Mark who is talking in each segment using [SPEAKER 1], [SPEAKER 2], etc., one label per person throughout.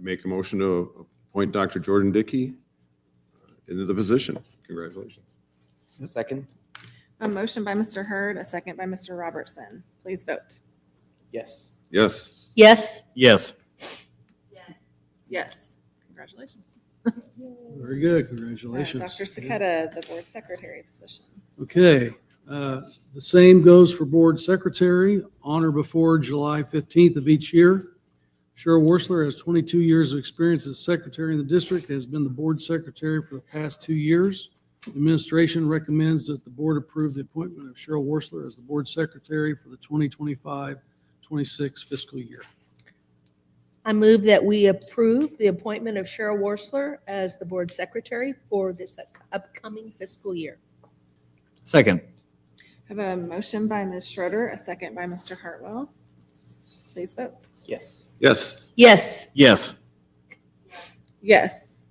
[SPEAKER 1] make a motion to appoint Dr. Jordan Dickey into the position. Congratulations.
[SPEAKER 2] Second?
[SPEAKER 3] A motion by Mr. Hurd, a second by Mr. Robertson. Please vote.
[SPEAKER 2] Yes.
[SPEAKER 1] Yes.
[SPEAKER 4] Yes.
[SPEAKER 5] Yes.
[SPEAKER 3] Yes. Congratulations.
[SPEAKER 6] Very good,
[SPEAKER 3] Uh,
[SPEAKER 6] congratulations.
[SPEAKER 3] Dr. Saketa, the board secretary position.
[SPEAKER 6] Okay, uh, the same goes for board secretary, on or before July 15th of each year. Cheryl Worsler has 22 years of experience as secretary in the district, has been the board secretary for the past two years. Administration recommends that the board approve the appointment of Cheryl Worsler as the board secretary for the 2025-26 fiscal year.
[SPEAKER 4] I move that we approve the appointment of Cheryl Worsler as the board secretary for this upcoming fiscal year.
[SPEAKER 5] Second.
[SPEAKER 3] Have a motion by Ms. Schroeder, a second by Mr. Hartwell. Please vote.
[SPEAKER 2] Yes.
[SPEAKER 1] Yes.
[SPEAKER 4] Yes.
[SPEAKER 5] Yes.
[SPEAKER 3] Yes.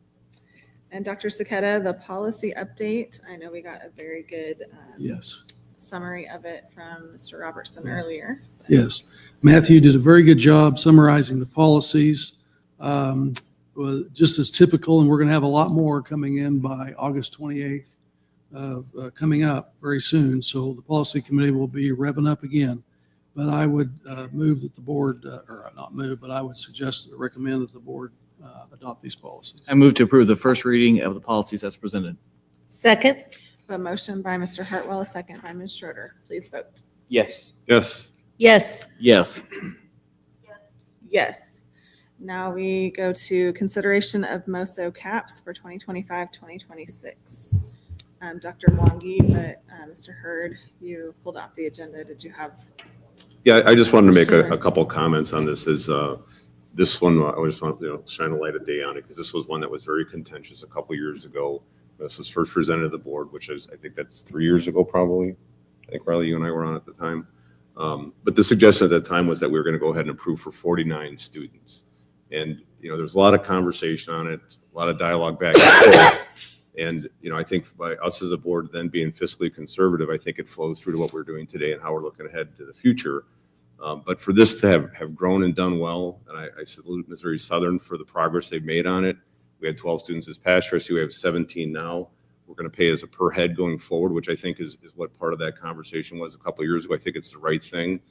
[SPEAKER 3] And Dr. Saketa, the policy update. I know we got a very good um,
[SPEAKER 6] Yes.
[SPEAKER 3] summary of it from Mr. Robertson earlier.
[SPEAKER 6] Yes. Matthew did a very good job summarizing the policies. um, well, Just as typical, and we're going to have a lot more coming in by August 28th, uh, uh, coming up very soon. So the policy committee will be revving up again. But I would uh, move that the board, uh, or not move, but I would suggest, that recommend that the board uh, adopt these policies.
[SPEAKER 5] I move to approve the first reading of the policies as presented.
[SPEAKER 4] Second.
[SPEAKER 3] A motion by Mr. Hartwell, a second by Ms. Schroeder. Please vote.
[SPEAKER 2] Yes.
[SPEAKER 1] Yes.
[SPEAKER 4] Yes.
[SPEAKER 5] Yes.
[SPEAKER 3] Yes. Now we go to consideration of MOSO caps for 2025, 2026. Um, Dr. Wongi, but uh, Mr. Hurd, you pulled off the agenda. Did you have?
[SPEAKER 1] Yeah, I just wanted to make a,
[SPEAKER 3] Sure.
[SPEAKER 1] a couple comments on this is, uh, this one, I just want, to you know, shine a light of day on it because this was one that was very contentious a couple years ago. This was first presented to the board, which is, I think that's three years ago probably. I think Riley, you and I were on at the time. Um, but the suggestion at that time was that we were going to go ahead and approve for forty-nine students. And, you know, there's a lot of conversation on it, a lot of dialogue back and forth. And, you know, I think by us as a board then being fiscally conservative, I think it flows through to what we're doing today and how we're looking ahead to the future. Um, But for this to have, have grown and done well, and I I salute Missouri Southern for the progress they've made on it. We had 12 students this past year, I see we have 17 now. We're going to pay as a per head going forward, which I think is, is what part of that conversation was a couple of years ago. I think it's the right thing.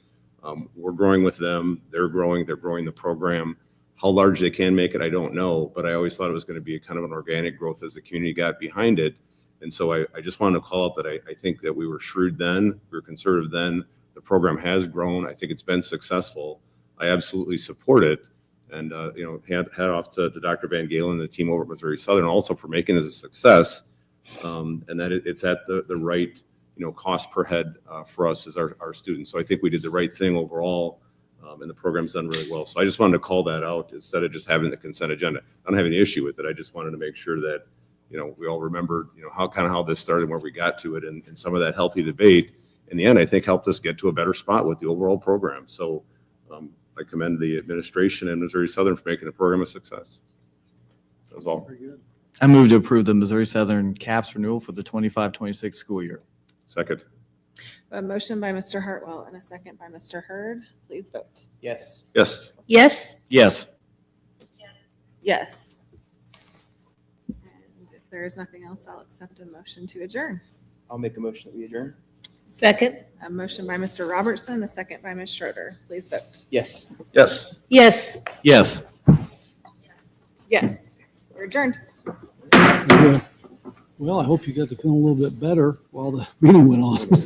[SPEAKER 1] Um, We're growing with them, they're growing, they're growing the program. How large they can make it, I don't know, but I always thought it was going to be kind of an organic growth as the community got behind it. And so I, I just wanted to call out that I, I think that we were shrewd then, we were conservative then. The program has grown. I think it's been successful. I absolutely support it. And, uh, you know, hat, hat off to, to Dr. Van Galen and the team over at Missouri Southern also for making this a success. Um, and that it, it's at the, the right, you know, cost per head, uh, for us as our, our students. So I think we did the right thing overall. Um, and the program's done really well. So I just wanted to call that out instead of just having the consent agenda. I don't have any issue with it. I just wanted to make sure that, you know, we all remembered, you know, how, kind of how this started, and where we got to it and, and some of that healthy debate in the end, I think helped us get to a better spot with the overall program. So um, I commend the administration and Missouri Southern for making the program a success. That was all.
[SPEAKER 6] Very good.
[SPEAKER 5] I move to approve the Missouri Southern CAPS renewal for the 25-26 school year.
[SPEAKER 1] Second,
[SPEAKER 3] A motion by Mr. Hartwell and a second by Mr. Hurd. Please vote.
[SPEAKER 2] Yes.
[SPEAKER 1] yes.
[SPEAKER 4] Yes.
[SPEAKER 5] Yes.
[SPEAKER 3] Yes. And if there is nothing else, I'll accept a motion to adjourn.
[SPEAKER 2] I'll make a motion that we adjourn.
[SPEAKER 4] Second.
[SPEAKER 3] A motion by Mr. Robertson, a second by Ms. Schroeder. Please vote.
[SPEAKER 2] Yes.
[SPEAKER 1] Yes.
[SPEAKER 4] Yes.
[SPEAKER 5] Yes.
[SPEAKER 3] Yes, we're adjourned.
[SPEAKER 6] Very good. Well, I hope you got to feel a little bit better while the meeting went on.